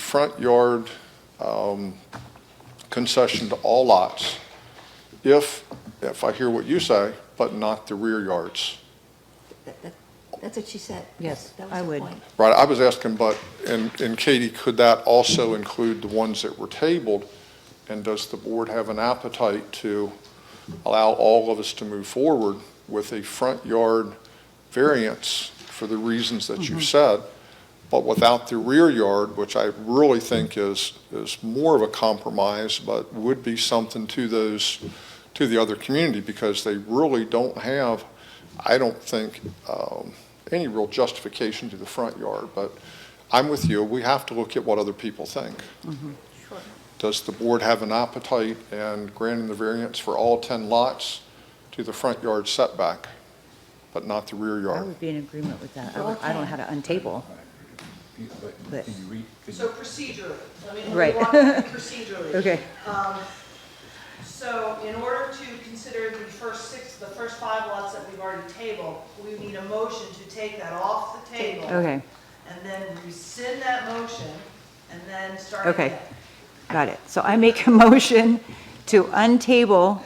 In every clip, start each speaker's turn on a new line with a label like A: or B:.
A: front yard um, concession to all lots if, if I hear what you say, but not the rear yards.
B: That- that- That's what she said.
C: Yes,
B: That was
C: I
B: her
C: would.
B: point.
A: Right, I was asking, but, and, and Katie, could that also include the ones that were tabled? And does the board have an appetite to allow all of us to move forward with a front yard variance for the reasons that you said, but without the rear yard, which I really think is, is more of a compromise, but would be something to those, to the other community, because they really don't have, I don't think, um, any real justification to the front yard, but I'm with you, we have to look at what other people think.
B: Sure.
A: Does the board have an appetite in granting the variance for all 10 lots to the front yard setback, but not the rear
C: I
A: yard?
C: would be in agreement with that. I don't- I don't know how to untable. But-
D: Can you read, can
E: So procedurally, let me, let
C: Right.
E: me walk through procedurally.
C: Okay.
E: Um, So in order to consider the first six, the first five lots that we've already tabled, we need a motion to take that off the table.
C: Okay,
E: And then rescind that motion and then start.
C: okay,
E: again.
C: got it. So I make a motion to untable,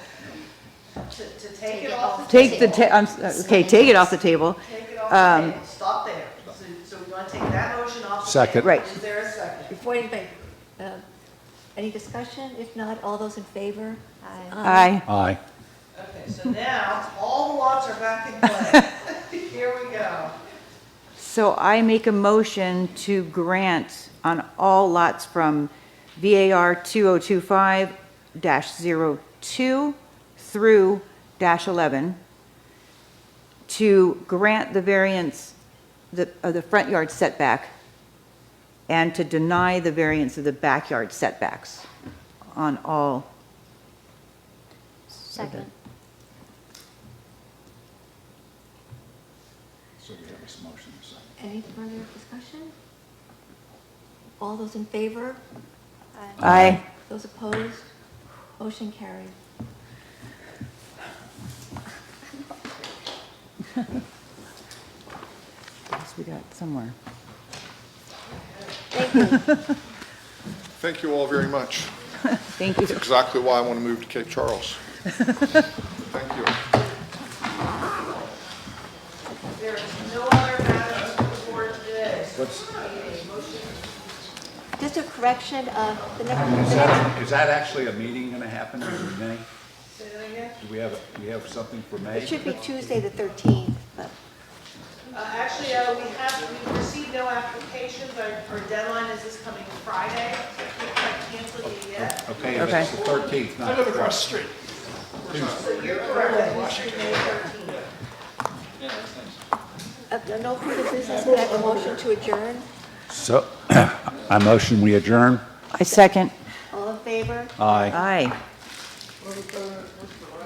E: To, to take it off, the
C: take the, ta- I'm s- okay, take it off the table.
E: take it off
C: Um,
E: the table, stop there. So, so we want to take that motion off the table.
D: Second.
C: Right.
E: Is there a second?
B: Before anybody, um, any discussion? If not, all those in favor?
C: Aye.
D: Aye.
E: Okay, so now all the lots are back in play. Here we go.
C: So I make a motion to grant on all lots from VAR 2025-02 through dash 11 to grant the variance the- of the front yard setback and to deny the variance of the backyard setbacks on all,
B: Second.
D: So we have this motion, and a second.
B: Any further discussion? All those in favor?
C: Aye.
B: Those opposed? Motion carried.
C: Yes, we got somewhere.
A: Thank you all very much.
C: Thank you.
A: Exactly why I want to move to Cape Charles. Thank you.
E: There is no other matters before today.
B: Just a correction, uh, the next, the next-
D: Is that actually a meeting going to happen in May?
E: Say that again?
D: Do we have, a- we have something for May?
B: it should be Tuesday, the 13th, but
E: Uh, Actually, uh, we have, we received no applications. Our our deadline is this coming Friday. so We can't cancel it yet.
D: Okay, if it's the 13th, not the 12th.
E: So you're correct, that was your May 13th.
B: uh, no further business, we have a motion to adjourn.
D: So, I motion we adjourn.
C: I second.
B: All in favor?
D: Aye.
C: Aye.
B: All opposed?